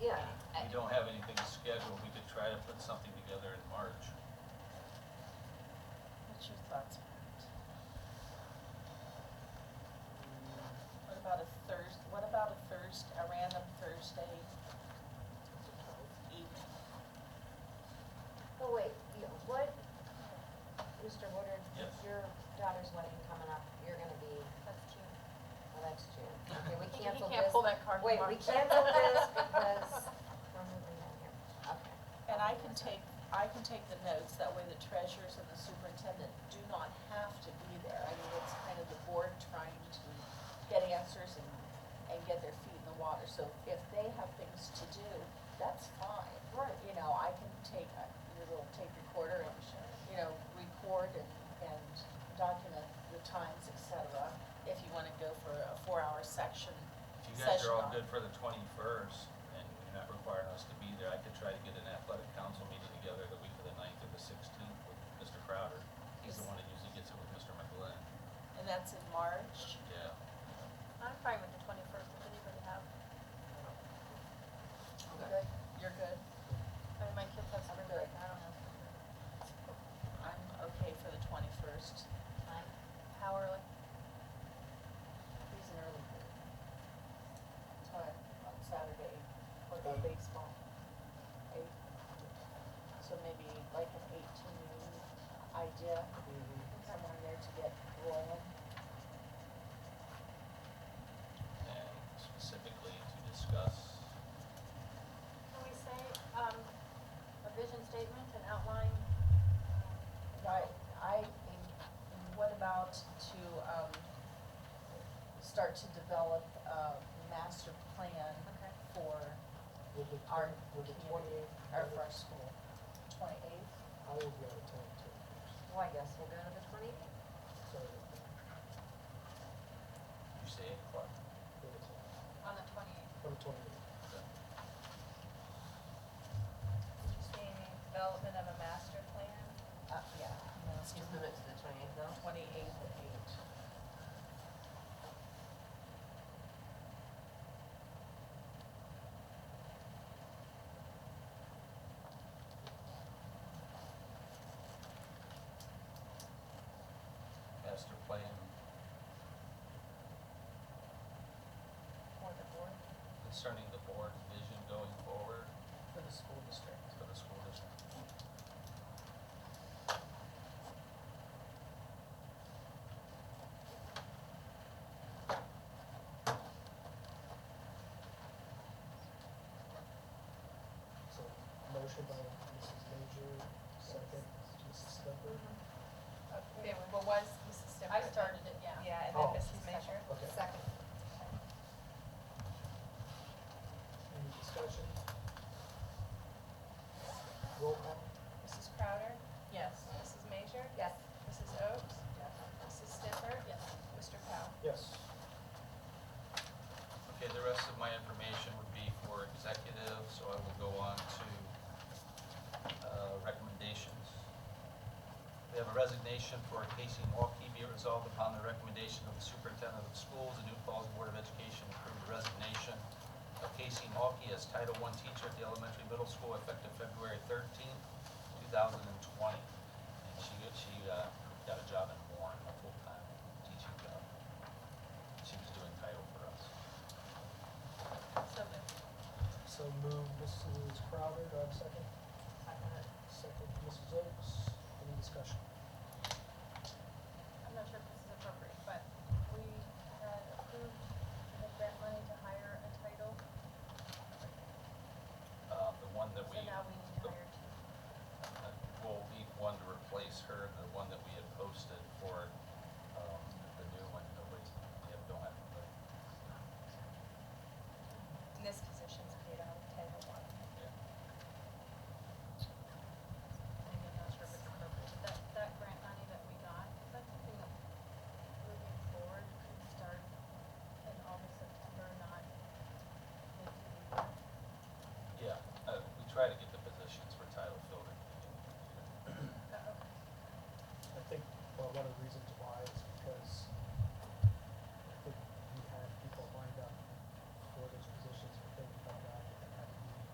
Mr. Woodard, Yes. your daughter's wedding coming up, you're gonna be, That's June. well, that's June. Okay, we He canceled can't this. pull that card. Wait, tomorrow. we canceled this because we're moving on here. Okay. And I can take, I can take the notes, that way the treasurers and the superintendent do not have to be there. I mean, it's kind of the board trying to get answers and, and get their feet in the water. So if they have things to do, that's fine. Right. You know, I can take a, your little tape recorder and, you know, record and, and document the times, et cetera. If you wanna go for a four-hour section, If you guys are all Session. good for the twenty-first, and you're not requiring us to be there, I could try to get an athletic council meeting together the week of the 9th or the sixteenth with Mr. Crowder. He's the one that usually gets it with Mr. McGlynn. and that's in March. Yeah. I'm fine with the twenty-first, if anybody have, Good. You're good? I mean, my kids have spring break, I don't know. I'm okay for the twenty-first. Fine. How early? He's an early bird. Time on Saturday for the baseball. Eight. So maybe like an eighteen idea, somewhere in there to get rolling. And specifically to discuss, Can we say, um, a vision statement and outline? um, Right, I, and what about to, um, start to develop a master plan Okay. for With the, our with the community, twenty-eighth, or for our school? Twenty-eighth? I will be out of town too. Well, I guess we'll go to the twenty eighth. So, you say eight o'clock. eight o'clock, On the twenty-eighth. on the twenty-eighth. Did you say development of a master plan? Uh, yeah, no, it's Just move it to the twenty eighth though. twenty-eighth at eight. Master plan, For the board? concerning the board's vision going forward For the school district. for the school district. So, motion by Mrs. Major, second, Mrs. Stepper. It wa- was Mrs. Stipper. I started it, yeah. Yeah, and then Oh. Mrs. Major. Okay, Second. any discussion? Roll call? Mrs. Crowder, Yes. Mrs. Major, Yes. Mrs. Oaks, Mrs. Stipper, Mr. Powell. Yes. Okay, the rest of my information would be for executive, so I will go on to uh, recommendations. We have a resignation for Casey Morkey be it resolved upon the recommendation of the superintendent of schools, the New Falls Board of Education approved the resignation of Casey Morkey as Title I teacher at the elementary middle school effective February thirteenth, two thousand and twenty. And she, she uh, got a job in Warren, a full-time teaching job. She was doing title for us. So moved. So move Mrs. Crowder, do I have a second? Second. Second, Mrs. Oaks, any discussion? Um, um, uh,